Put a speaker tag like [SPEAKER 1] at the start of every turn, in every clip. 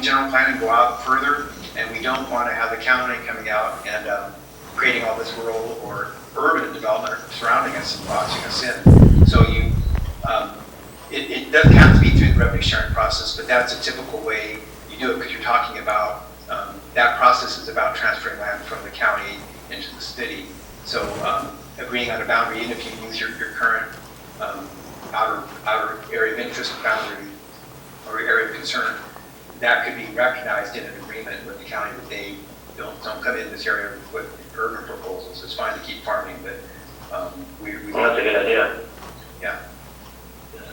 [SPEAKER 1] general plan and go out further, and we don't want to have the county coming out and um, creating all this rural or urban development surrounding us and boxing us in. So you, um, it, it doesn't have to be through the revenue sharing process, but that's a typical way you do it, because you're talking about, um, that process is about transferring land from the county into the city. So, um, agreeing on a boundary, even if you use your, your current, um, outer, outer area of interest boundary or area of concern, that could be recognized in an agreement with the county that they don't, don't come in this area with urban proposals. It's fine to keep farming, but, um, we, we.
[SPEAKER 2] Well, that's a good idea.
[SPEAKER 1] Yeah.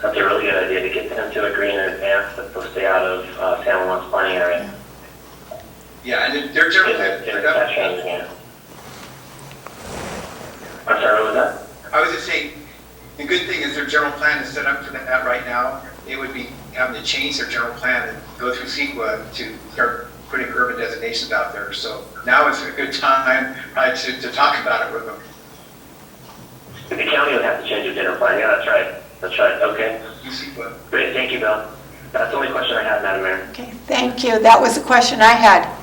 [SPEAKER 2] That's a really good idea to get them to agree in advance that they'll stay out of uh, San Juan's planning area.
[SPEAKER 1] Yeah, and then they're
[SPEAKER 2] If
[SPEAKER 1] generally,
[SPEAKER 2] if that changes again. I'm sorry, what was that?
[SPEAKER 1] I was just saying, the good thing is their general plan is set up for that right now. They would be having to change their general plan and go through CEQA to start putting urban designations out there. So now is a good time, right, to, to talk about it with them.
[SPEAKER 2] The county would have to change their dinner plan. Yeah, that's right. That's right. Okay.
[SPEAKER 1] You CEQA.
[SPEAKER 2] Great. Thank you, Bill. That's the only question I had, Madam Mayor.
[SPEAKER 3] Okay, thank you. That was the question I had.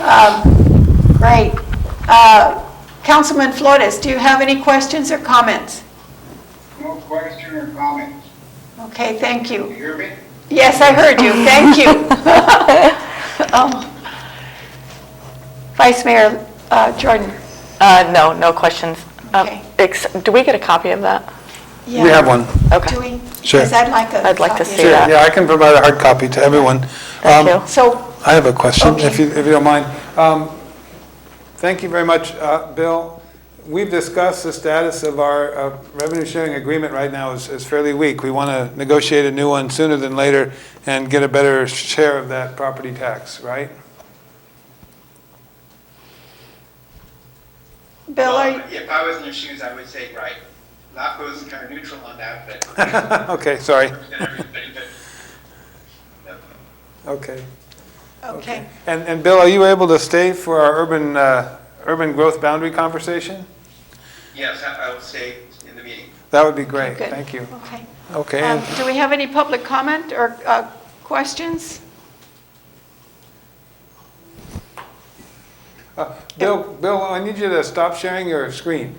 [SPEAKER 3] Um, Great. Uh, Councilman Flores, do you have any questions or comments?
[SPEAKER 1] No question or comment.
[SPEAKER 3] Okay, thank you.
[SPEAKER 1] You hear me?
[SPEAKER 3] Yes, I heard you, thank you. Um, Vice Mayor uh, Jordan?
[SPEAKER 4] Uh, no, no questions. Um,
[SPEAKER 3] Okay.
[SPEAKER 4] ex- Do we get a copy of that?
[SPEAKER 3] Yeah.
[SPEAKER 5] We have one.
[SPEAKER 3] Do
[SPEAKER 4] Okay.
[SPEAKER 3] we?
[SPEAKER 5] Sure.
[SPEAKER 3] Because I'd like a
[SPEAKER 4] I'd like to
[SPEAKER 3] copy of
[SPEAKER 4] see
[SPEAKER 3] that.
[SPEAKER 4] that.
[SPEAKER 5] Yeah, I can provide a hard copy to everyone.
[SPEAKER 4] Thank
[SPEAKER 5] Um,
[SPEAKER 4] you.
[SPEAKER 3] So,
[SPEAKER 5] I have a question, if
[SPEAKER 3] Okay.
[SPEAKER 5] you, if you don't mind. Um, Thank you very much, uh, Bill. We've discussed the status of our uh, revenue sharing agreement right now is is fairly weak. We want to negotiate a new one sooner than later and get a better share of that property tax, right?
[SPEAKER 3] Bill, are you-
[SPEAKER 1] Well, If I was in your shoes, I would say, right. LAFCO was kind of neutral on that, but,
[SPEAKER 5] Okay, sorry.
[SPEAKER 1] and everything, but. Yep.
[SPEAKER 5] Okay.
[SPEAKER 3] okay.
[SPEAKER 5] And, and Bill, are you able to stay for our urban, uh, urban growth boundary conversation?
[SPEAKER 1] Yes, I I will stay in the meeting.
[SPEAKER 5] That would be great,
[SPEAKER 3] Good.
[SPEAKER 5] thank you.
[SPEAKER 3] Okay.
[SPEAKER 5] Okay,
[SPEAKER 3] Um,
[SPEAKER 5] and-
[SPEAKER 3] Do we have any public comment or uh, questions?
[SPEAKER 5] Uh, Bill, Bill, I need you to stop sharing your screen.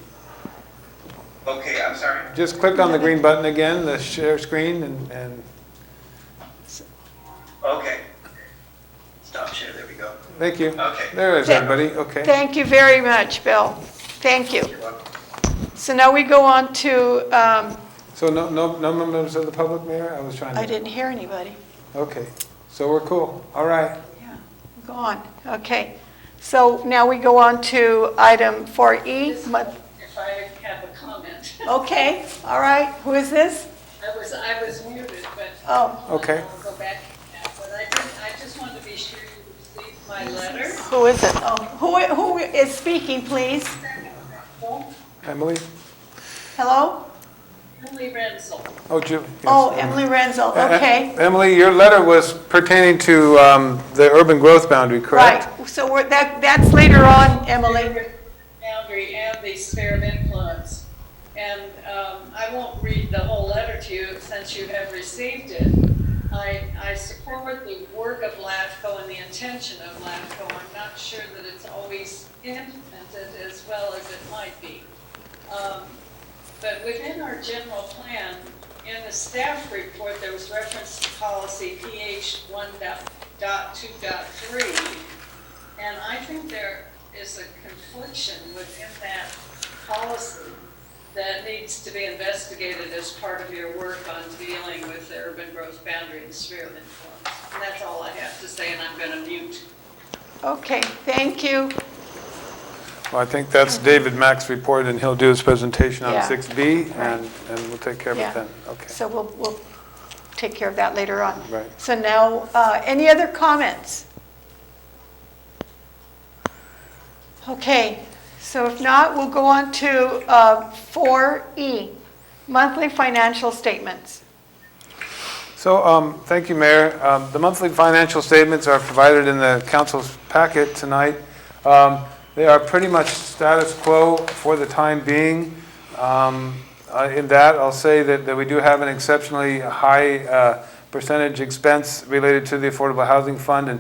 [SPEAKER 1] Okay, I'm sorry.
[SPEAKER 5] Just click on the green button again, the share screen, and, and
[SPEAKER 1] Okay. Stop share, there we go.
[SPEAKER 5] thank you.
[SPEAKER 1] Okay.
[SPEAKER 5] There is everybody, okay.
[SPEAKER 3] Thank you very much, Bill. Thank you.
[SPEAKER 1] You're welcome.
[SPEAKER 3] So now we go on to, um,
[SPEAKER 5] So no, no, no members of the public, Mayor? I was trying to.
[SPEAKER 3] I didn't hear anybody.
[SPEAKER 5] Okay, so we're cool, all right.
[SPEAKER 3] Yeah, Go on, okay. So now we go on to item 4E. Mo-
[SPEAKER 6] If I have a comment.
[SPEAKER 3] Okay, all right, who is this?
[SPEAKER 6] I was, I was muted, but.
[SPEAKER 3] Oh.
[SPEAKER 5] Okay.
[SPEAKER 6] I'll go back. But I did, I just wanted to be sure you received my letter.
[SPEAKER 4] Who is it?
[SPEAKER 3] Oh, Who Who is speaking, please?
[SPEAKER 5] Emily?
[SPEAKER 3] Hello?
[SPEAKER 6] Emily Renzel.
[SPEAKER 5] Oh, Ju. yes,
[SPEAKER 3] Oh,
[SPEAKER 5] Emily.
[SPEAKER 3] Emily Renzel,
[SPEAKER 5] Uh, uh,
[SPEAKER 3] okay.
[SPEAKER 5] Emily, your letter was pertaining to um, the urban growth boundary, correct?
[SPEAKER 3] Right, so we're that that's later on, Emily.
[SPEAKER 6] Boundary and the sphere of influence. And um, I won't read the whole letter to you since you have received it. I, I support the work of LAFCO and the intention of LAFCO. I'm not sure that it's always implemented as well as it might be. Um, But within our general plan, in the staff report, there was reference to policy PH 1.2.3. And I think there is a confliction within that policy that needs to be investigated as part of your work on dealing with the urban growth boundary and sphere of influence. And that's all I have to say, and I'm going to mute.
[SPEAKER 3] Okay, thank you.
[SPEAKER 5] Well, I think that's David Mack's report, and he'll do his presentation on
[SPEAKER 3] Mm-hmm. Yeah.
[SPEAKER 5] 6B, and, and we'll take care of
[SPEAKER 3] Yeah.
[SPEAKER 5] it then. Okay.
[SPEAKER 3] So we'll, we'll take care of that later on.
[SPEAKER 5] Right.
[SPEAKER 3] So now, uh, any other comments? Okay, so if not, we'll go on to uh, 4E, monthly financial statements.
[SPEAKER 5] So, um, thank you, Mayor. Um, The monthly financial statements are provided in the council's packet tonight. Um, They are pretty much status quo for the time being. Um, uh, In that, I'll say that that we do have an exceptionally high uh, percentage expense related to the Affordable Housing Fund, and